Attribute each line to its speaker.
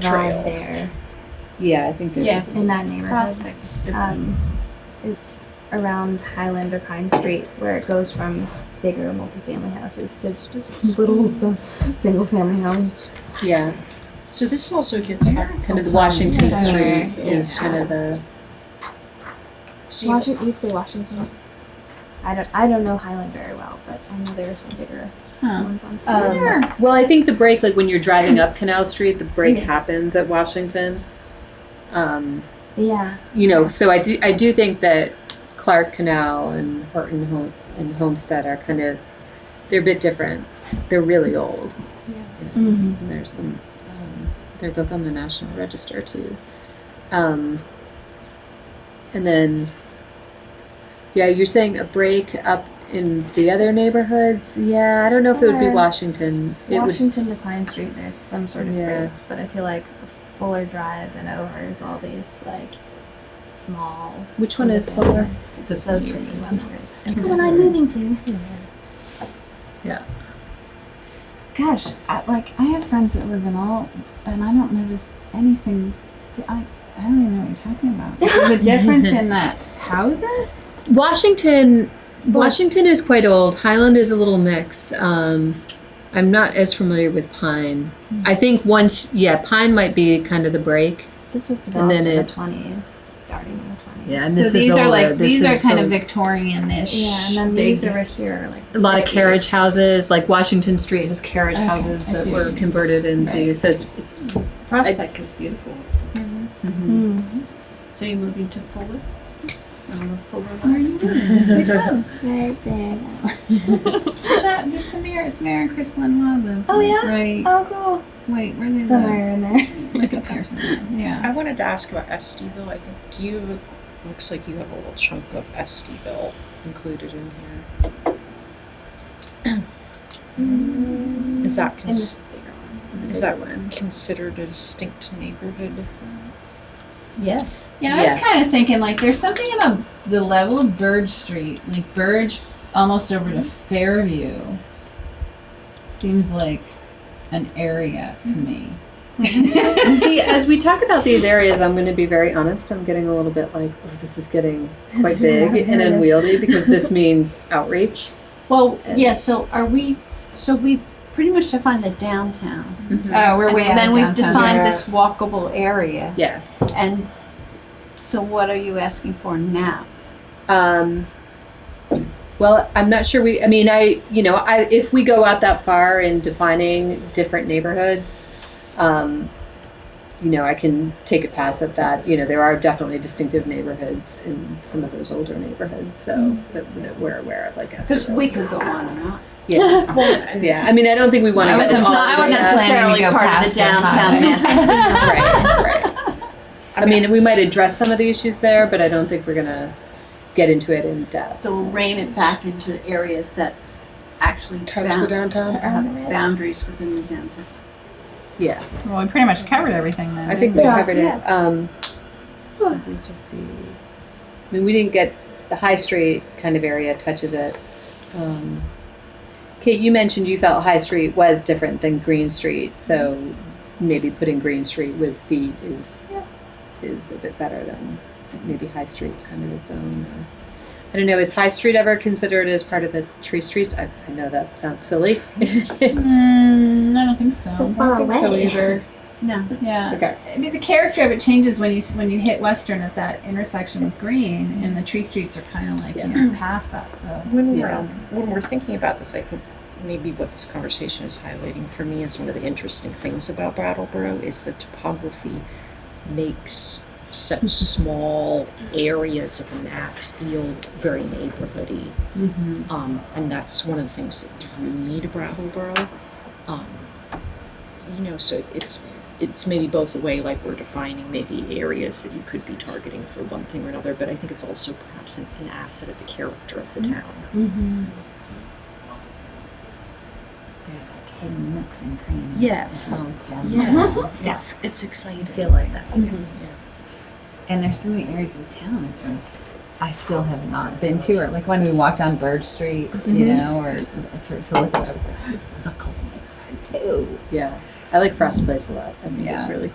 Speaker 1: Trail. survive there
Speaker 2: Yeah, I think there
Speaker 3: Yeah.
Speaker 2: is a-
Speaker 1: in that neighborhood.
Speaker 3: Prospect is different.
Speaker 1: Um, it's around Highland or Pine Street where it goes from bigger multifamily houses to just little single family homes.
Speaker 2: Yeah.
Speaker 3: So this also gets back
Speaker 2: Kind of the Washington
Speaker 1: Yeah.
Speaker 2: Street
Speaker 1: Yeah.
Speaker 2: is kind of the
Speaker 3: So you-
Speaker 1: Washington, you say Washington. I don't, I don't know Highland very well, but I know there are some bigger
Speaker 3: Huh.
Speaker 1: ones on.
Speaker 2: Um,
Speaker 1: Cedar.
Speaker 2: Well, I think the break, like when you're driving up Canal Street, the break happens at Washington. Um,
Speaker 1: yeah,
Speaker 2: you know, so I do, I do think that Clark Canal and Horton Home and Homestead are kind of they're a bit different. They're really old.
Speaker 1: mm-hmm.
Speaker 2: And there's some. Um, they're both on the National Register too. Um, and then, yeah, you're saying a break up in the other neighborhoods. Yeah, I don't know if it would
Speaker 1: Somewhere.
Speaker 2: be Washington. It would
Speaker 1: Washington to Pine Street. There's some sort of
Speaker 2: Yeah.
Speaker 1: break, but I feel like Fuller Drive and over is all these like small.
Speaker 2: Which one is Fuller?
Speaker 1: That's so twenty-one hundred.
Speaker 2: I'm
Speaker 1: The one I'm moving to.
Speaker 2: Yeah.
Speaker 4: Gosh, I, like I have friends that live in all, and I don't notice anything. D- I I don't even know what you're talking about. There's a difference in that houses.
Speaker 2: Washington. Washington is quite old. Highland is a little mix. Um, I'm not as familiar with Pine.
Speaker 4: Hmm.
Speaker 2: I think once, yeah, Pine might be kind of the break.
Speaker 1: This was
Speaker 2: And
Speaker 1: developed
Speaker 2: then
Speaker 1: in the
Speaker 2: it-
Speaker 1: twenties, starting in the twenties.
Speaker 5: Yeah, and
Speaker 4: so
Speaker 5: this is
Speaker 4: these are
Speaker 5: older.
Speaker 4: like
Speaker 5: This
Speaker 4: these are
Speaker 5: is
Speaker 4: kind
Speaker 5: the-
Speaker 4: of Victorian-ish.
Speaker 1: Yeah, and then
Speaker 4: big-
Speaker 1: these over here are like
Speaker 2: A lot of carriage
Speaker 1: 50s.
Speaker 2: houses, like Washington Street has carriage
Speaker 4: Okay,
Speaker 2: houses
Speaker 4: I
Speaker 2: that
Speaker 4: see.
Speaker 2: were converted into. So it's, it's
Speaker 3: Prospect is beautiful.
Speaker 1: Mm.
Speaker 3: So you're moving to Fuller? I don't know Fuller. Where are you?
Speaker 4: Which one?
Speaker 1: Right there. Now.
Speaker 4: Is that the Samir, Samir and Chris Lynn one of them?
Speaker 1: Oh, yeah?
Speaker 4: Right.
Speaker 1: Oh,
Speaker 4: Wait, where they
Speaker 1: cool. Somewhere in there.
Speaker 4: live? Like up here somewhere. Yeah.
Speaker 3: I wanted to ask about Esteville. I think do you have a, looks like you have a little chunk of Esteville included in here.
Speaker 4: Mm,
Speaker 3: Is that
Speaker 1: In
Speaker 3: cons-
Speaker 1: this bigger one.
Speaker 3: is that considered a distinct neighborhood?
Speaker 2: Yeah.
Speaker 4: Yeah, I
Speaker 2: Yes.
Speaker 4: was kind of thinking like there's something about the level of Burge Street, like Burge almost over to Fairview. Seems like an area to me.
Speaker 2: And see, as we talk about these areas, I'm going to be very honest. I'm getting a little bit like, oh, this is getting quite big and unwieldy because this means outreach.
Speaker 6: Well, yeah, so are we, so we pretty much defined the downtown.
Speaker 2: Uh,
Speaker 4: Oh, we're way out
Speaker 6: And then
Speaker 4: of
Speaker 6: we've
Speaker 4: downtown.
Speaker 6: defined this walkable area.
Speaker 2: Yes.
Speaker 6: And so what are you asking for now?
Speaker 2: Um, well, I'm not sure we, I mean, I, you know, I, if we go out that far in defining different neighborhoods, um, you know, I can take a pass at that. You know, there are definitely distinctive neighborhoods in some of those older neighborhoods, so that, that we're aware of, I guess.
Speaker 6: Mm-hmm. Because we could go on and on.
Speaker 2: yeah. yeah. I mean, I don't think we want
Speaker 4: I
Speaker 2: to.
Speaker 4: wasn't, I wasn't planning to go past the
Speaker 2: right, right. I mean, we might address some of the issues there, but I don't think we're going to get into it in depth.
Speaker 6: So we'll rein it back into areas that actually bound-
Speaker 3: downtown.
Speaker 6: have boundaries within the downtown.
Speaker 2: yeah.
Speaker 4: Well, we pretty much covered everything then.
Speaker 2: I think we covered it. Um, let me just see. I mean, we didn't get the High Street kind of area touches it. Um, Kate, you mentioned you felt High Street was different than Green Street, so maybe putting Green Street with feet is is a bit better than maybe High Street's kind of its own. Or, I don't know. Is High Street ever considered as part of the Tree Streets? I, I know that sounds silly. It's-
Speaker 4: Mm, I don't think so.
Speaker 1: far away.
Speaker 6: No.
Speaker 4: Yeah.
Speaker 2: okay.
Speaker 4: I mean, the character of it changes when you s- when you hit Western at that intersection with Green, and the tree streets are kind of like you know, past that. So
Speaker 3: When we're,
Speaker 2: Yeah.
Speaker 3: when we're thinking about this, I think maybe what this conversation is highlighting for me is one of the interesting things about Brattleboro is the topography makes such small areas of the map feel very neighborhoody. Um, and that's one of the things that drew me to Brattleboro. Um, you know, so it's it's maybe both the way like we're defining maybe areas that you could be targeting for one thing or another, but I think it's also perhaps an, an asset of the character of the town.
Speaker 4: there's like hidden nooks and crannies.
Speaker 3: Yes.
Speaker 4: gems.
Speaker 3: Yeah.
Speaker 4: Yeah.
Speaker 3: It's it's exciting.
Speaker 4: feel like that.
Speaker 2: Mhm.
Speaker 4: And there's so many areas of town it's like I still have not been to, or like when we walked on Bird Street, you know, or for, to look at, it, I was like, this is a cool neighborhood too.
Speaker 2: Yeah. I like Frost Place a lot. I think
Speaker 4: Yeah.
Speaker 2: it's really